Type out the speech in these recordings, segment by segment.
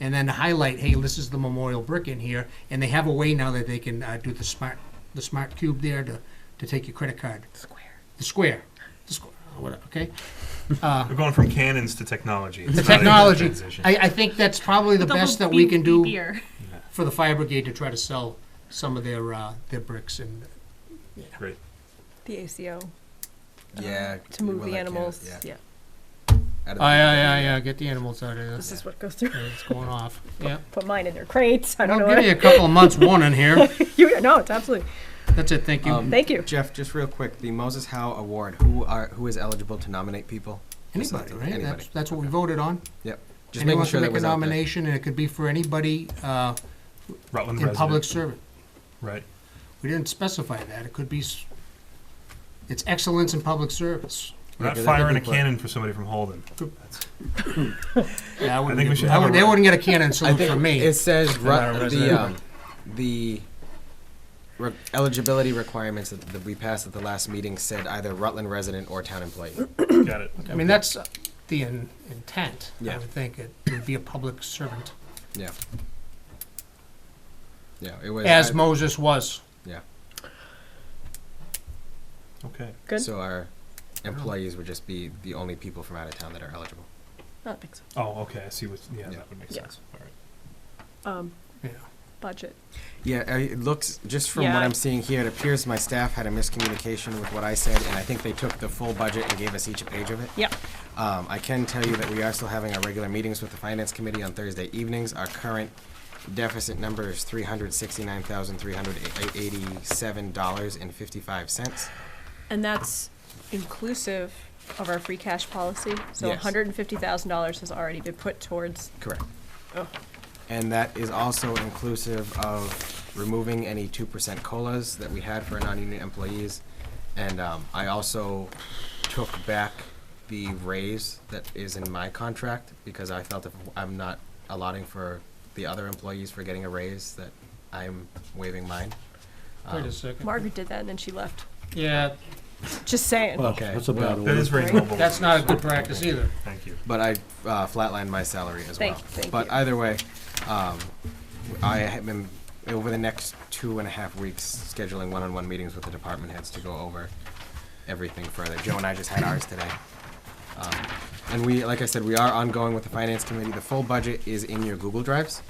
and then highlight, hey, this is the memorial brick in here, and they have a way now that they can uh, do the smart, the smart cube there to, to take your credit card. Square. The square, the square, whatever, okay? We're going from cannons to technology. It's The not an easy technology, transition. I, I think that's probably the With best little that we beep- can do beepier. for the fire brigade to try to sell some of their, uh, their bricks and, Great. The ACO Yeah. Um, to move well, the I can't- animals. yeah. Yeah. Out of the- oh, yeah, yeah, yeah, get the animals out of This this, is what goes through. it's going off, yeah. Put mine in their crates. I don't I'll know. Oh, give you a couple of months warning here, What, you no, it's absolutely. that's it, thank you. Um, Thank you. Jeff, just real quick, the Moses Howe Award. Who are who is eligible to nominate people? Just Anybody, something- right? That's, Anybody. that's what we voted on. Yep. Just making Anyone sure can that make a was out there. nomination, and it could be for anybody uh, Rutland in resident. public service. Right. We didn't specify that. It could be, s- it's excellence in public service. We're not Yeah, 'cause I think firing a we put- cannon for somebody from Holden. Yeah, I wouldn't think we give- should I have would- a- They wouldn't get a cannon I salute think from me. it says ru- not a the resident. um, the re- eligibility requirements that, that we passed at the last meeting said either Rutland resident or town employee. Got it. I mean, that's uh, the in- intent, I Yeah. would think. It would be a public servant, Yeah. Yeah, it was. as I- Moses was. yeah. Okay. Good. So our employees would just be the only people from out of town that are eligible. I don't think so. Oh, okay. I see what. Yeah, Yeah. that would make Yeah. sense. All right. Um, Yeah. budget. Yeah, I- it looks, just from what Yeah. I'm seeing here, it appears my staff had a miscommunication with what I said, and I think they took the full budget and gave us each a page of it. Yeah. Um, I can tell you that we are still having our regular meetings with the finance committee on Thursday evenings. Our current deficit number is three hundred sixty-nine thousand, three hundred eighty-seven dollars and fifty-five cents. And that's inclusive of our free cash policy. So Yes. $150,000 has already been put towards. Correct. Oh. And that is also inclusive of removing any two percent colas that we had for non-union employees. And um, I also took back the raise that is in my contract because I felt if I'm not allotting for the other employees for getting a raise, that I'm waiving mine. Wait Um, a second. Margaret did that and then she left. Yeah, Just saying. Okay. That's a well, bad That one. is very noble. that's not a good practice either. Thank you. But I uh, flatlined my salary as Thank- well. thank but you. either way, um, I have been over the next two and a half weeks scheduling one-on-one meetings with the department heads to go over everything further. Joe and I just had ours today. Um, and we, like I said, we are ongoing with the finance committee. The full budget is in your Google Drives,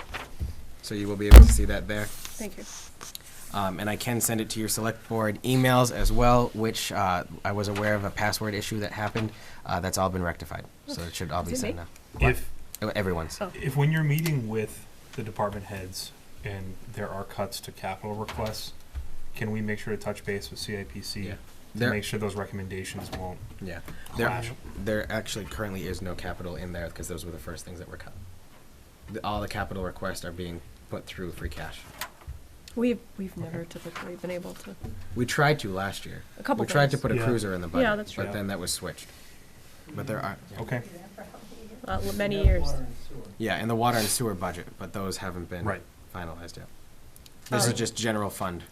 so you will be able to see that there. Thank you. Um, and I can send it to your select board emails as well, which uh, I was aware of a password issue that happened. Uh, that's all been rectified, so it should all be Is it sent me? now. If Oh, Everyone's. Oh. if when you're meeting with the department heads and there are cuts to capital requests, can we make sure to touch base with CIPC Yeah. to There- make sure those recommendations won't? Yeah. There, Clash. there actually currently is no capital in there because those were the first things that were cut. The, all the capital requests are being put through free cash. We've, we've never typically been able to. We tried to last year. A couple We tried to things. put a Yeah. cruiser in the budget. Yeah, that's true. But then that was switched. But there are, Okay. Not uh, many years. yeah, in the water and sewer budget, but those haven't been Right. finalized yet. This is Um, just general fund.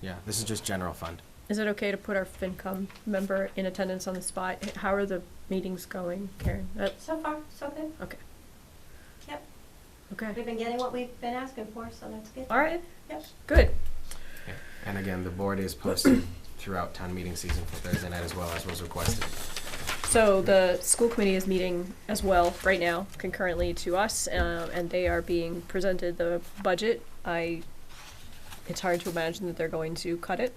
Yeah, this is just general fund. Is it okay to put our FinCom member in attendance on the spot? How are the meetings going, Karen? Uh, So far, so good. Okay, Yep. We've okay. been getting what we've been asking for, so that's good. All right, Yep. good. Yeah. And again, the board is posted throughout town meeting season for Thursday night as well as was requested. So the school committee is meeting as well right now concurrently to us, um, and they are being presented the budget. I, it's hard to imagine that they're going to cut it.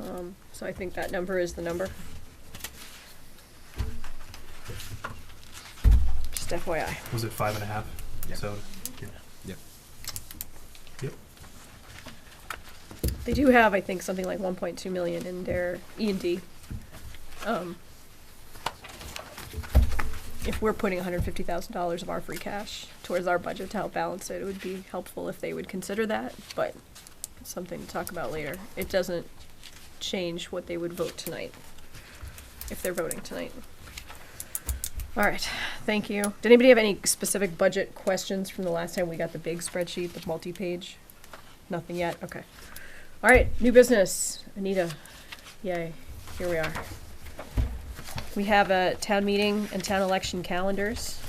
Um, so I think that number is the number. Just FYI. Was it five and a half? Yep. So Yep. They do have, I think, something like one point two million in their E and D. Um, If we're putting hundred fifty thousand dollars of our free cash towards our budget to help balance it, it would be helpful if they would consider that, but it's something to talk about later. It doesn't change what they would vote tonight, if they're voting tonight. All right, thank you. Did anybody have any specific budget questions from the last time we got the big spreadsheet, the multi-page? Nothing yet, okay. All right, new business, Anita. Yay, here we are. We have a town meeting and town election calendars.